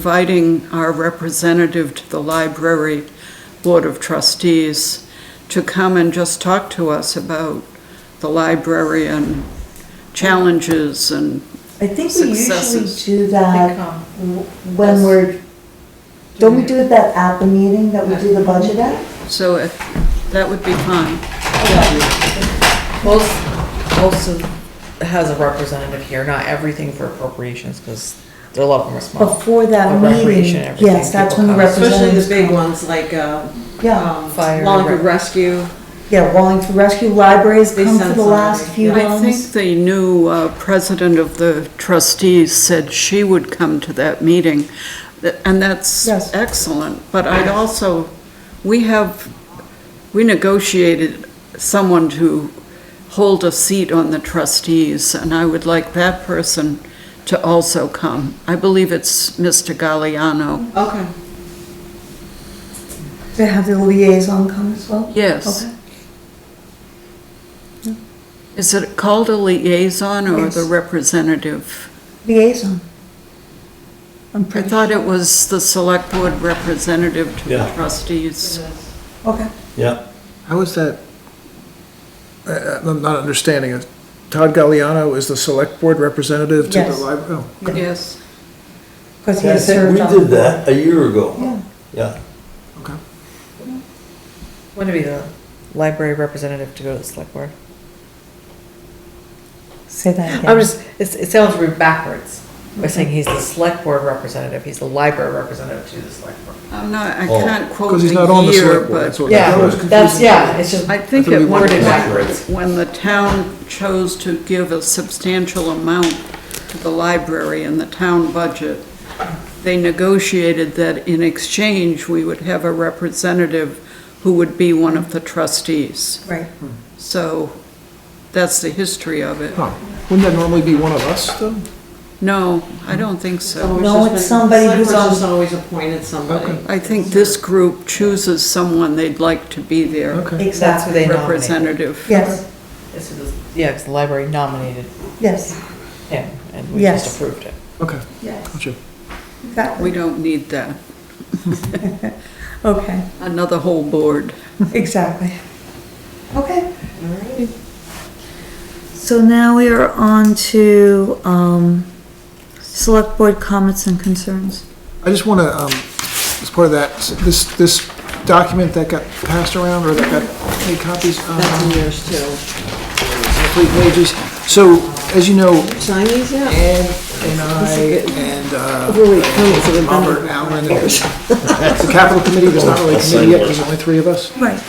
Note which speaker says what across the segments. Speaker 1: inviting our representative to the library board of trustees to come and just talk to us about the library and challenges and,
Speaker 2: I think we usually
Speaker 1: Successes.
Speaker 2: do
Speaker 3: They
Speaker 4: Uh,
Speaker 2: that
Speaker 3: come.
Speaker 2: w- when we're, don't we do it that at the meeting that we do the budget at?
Speaker 1: so it- that would be fine.
Speaker 3: Most, most of, has a representative here, not everything for appropriations, because a lot of them are small.
Speaker 2: Before that
Speaker 3: The recreation,
Speaker 2: meeting,
Speaker 3: everything,
Speaker 2: yes, that's when the
Speaker 3: people come.
Speaker 4: Especially
Speaker 2: representatives
Speaker 4: the big
Speaker 2: come.
Speaker 4: ones like, uh,
Speaker 2: Yeah,
Speaker 4: um,
Speaker 3: Fire and
Speaker 4: Wallingford
Speaker 3: Rec-
Speaker 4: Rescue.
Speaker 2: yeah, Wallingford Rescue Libraries
Speaker 4: They
Speaker 2: come for
Speaker 4: send
Speaker 2: the last
Speaker 4: somebody,
Speaker 2: few
Speaker 4: yeah.
Speaker 1: I
Speaker 2: ones.
Speaker 1: think the new uh, president of the trustees said she would come to that meeting, th- and that's
Speaker 2: Yes.
Speaker 1: excellent. But I'd also, we have, we negotiated someone to hold a seat on the trustees, and I would like that person to also come. I believe it's Mr. Galliano.
Speaker 4: Okay.
Speaker 2: They have the liaison come as well?
Speaker 1: Yes.
Speaker 2: Okay.
Speaker 1: Is it called a liaison or the
Speaker 2: Yes.
Speaker 1: representative?
Speaker 2: Liaison. I'm
Speaker 1: I
Speaker 2: pretty,
Speaker 1: thought it was the select board representative to the
Speaker 5: Yeah.
Speaker 1: trustees.
Speaker 2: okay.
Speaker 5: Yeah,
Speaker 6: How is that? I- I- Uh, I'm not understanding it. Todd Galliano is the select board representative to the oh,
Speaker 2: Yes.
Speaker 6: library?
Speaker 1: Yes.
Speaker 2: Because he
Speaker 5: I
Speaker 2: has
Speaker 5: think we
Speaker 2: served on.
Speaker 5: did that a year ago.
Speaker 2: Yeah,
Speaker 5: Yeah,
Speaker 6: Okay.
Speaker 3: When to be the library representative to go to the select board?
Speaker 2: say that again.
Speaker 3: I'm just, it, it sounds rude backwards, by saying he's the select board representative, he's the library representative to the select board.
Speaker 1: I'm not, I
Speaker 5: Oh.
Speaker 1: can't quote
Speaker 6: Because he's not on
Speaker 1: the
Speaker 6: the
Speaker 1: year,
Speaker 6: select board, that's
Speaker 1: but
Speaker 6: what- Yeah,
Speaker 3: Yeah,
Speaker 6: that was
Speaker 3: that's, yeah, it's just,
Speaker 1: I think
Speaker 6: I thought
Speaker 1: at
Speaker 6: we
Speaker 1: one
Speaker 3: worded
Speaker 1: point,
Speaker 3: backwards.
Speaker 1: when the town chose to give a substantial amount to the library in the town budget, they negotiated that in exchange, we would have a representative who would be one of the trustees.
Speaker 2: Right.
Speaker 1: So that's the history of it.
Speaker 6: Huh. Wouldn't that normally be one of us, though?
Speaker 1: No, I don't think so.
Speaker 4: So
Speaker 2: No,
Speaker 4: just
Speaker 2: it's
Speaker 4: been-
Speaker 2: somebody
Speaker 4: select
Speaker 2: who's
Speaker 4: board's
Speaker 2: on-
Speaker 4: just always appointed somebody.
Speaker 1: I think this group chooses someone they'd like to be their
Speaker 6: Okay.
Speaker 3: that's who
Speaker 2: Exactly.
Speaker 3: they nominated.
Speaker 1: representative.
Speaker 2: Yes,
Speaker 3: It's who the- Yeah, because the library nominated
Speaker 2: yes,
Speaker 3: him, and we just
Speaker 2: Yes.
Speaker 3: approved it.
Speaker 6: Okay,
Speaker 2: yes,
Speaker 6: gotcha.
Speaker 1: We
Speaker 2: exactly.
Speaker 1: don't need that,
Speaker 2: Okay,
Speaker 1: another whole board.
Speaker 2: exactly. Okay. So now we are on to, um, select board comments and concerns.
Speaker 6: I just want to, as part of that, s- this, this document that got passed around, or that got made copies, um,
Speaker 4: That's in yours too.
Speaker 6: complete pages. So, as you know,
Speaker 4: Sign these yet?
Speaker 6: Ed and I and uh,
Speaker 4: Really cool, so we've done it.
Speaker 6: Robert Allen. The capital committee, there's not really a committee yet, there's only three of us.
Speaker 2: Right.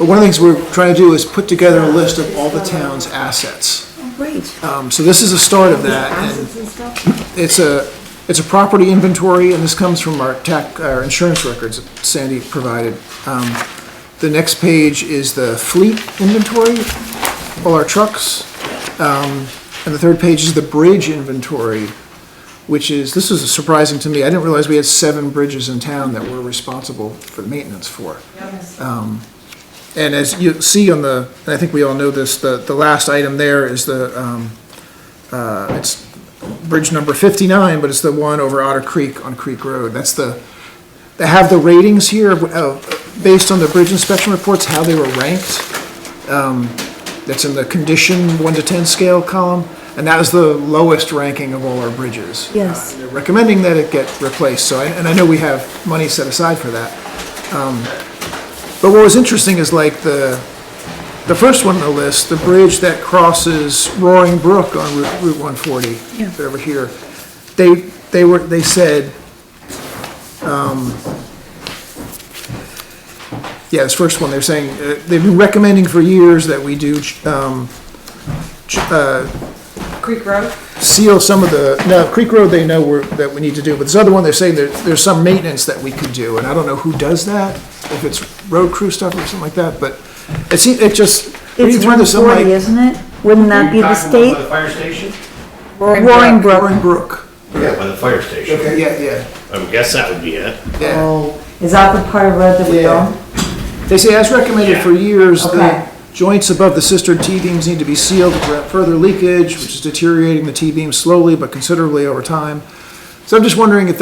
Speaker 6: But one of the things we're trying to do is put together a list of all the town's assets.
Speaker 2: Great.
Speaker 6: Um, So this is the start of that, and it's a, it's a property inventory, and this comes from our tax, our insurance records that Sandy provided. Um, The next page is the fleet inventory, all our trucks. Um, And the third page is the bridge inventory, which is, this is surprising to me, I didn't realize we had seven bridges in town that we're responsible for maintenance for. And as you see on the, and I think we all know this, the, the last item there is the, um, uh, it's bridge number fifty-nine, but it's the one over Otter Creek on Creek Road. That's the, they have the ratings here of, of- based on the bridge inspection reports, how they were ranked. Um, that's in the condition one to ten scale column, and that is the lowest ranking of all our bridges.
Speaker 2: Yes.
Speaker 6: Uh, They're recommending that it get replaced, so, I- and I know we have money set aside for that. Um, But what was interesting is like the, the first one on the list, the bridge that crosses Roaring Brook on Route Route 140, they're over here, they, they were, they said, um, yeah, this first one, they're saying, uh, they've been recommending for years that we do, um, ch- uh,
Speaker 4: Creek Road?
Speaker 6: seal some of the, no, Creek Road, they know we're, that we need to do, but this other one, they're saying there, there's some maintenance that we could do, and I don't know who does that, if it's road crew stuff or something like that, but it seems, it just, reading
Speaker 2: It's
Speaker 6: through
Speaker 2: one
Speaker 6: this, I'm like.
Speaker 2: forty, isn't it? Wouldn't that be the state?
Speaker 7: By the fire station?
Speaker 2: Roaring Brook.
Speaker 6: Roaring Brook.
Speaker 7: Yeah, by the fire station.
Speaker 6: Okay, yeah, yeah,
Speaker 7: I would guess that would be it.
Speaker 6: yeah.
Speaker 2: Oh, is that the part of red that we
Speaker 6: Yeah.
Speaker 2: don't?
Speaker 6: They say, as recommended for years,
Speaker 2: Okay.
Speaker 6: the joints above the cistern T-beams need to be sealed to prevent further leakage, which is deteriorating the T-beam slowly but considerably over time. So I'm just wondering if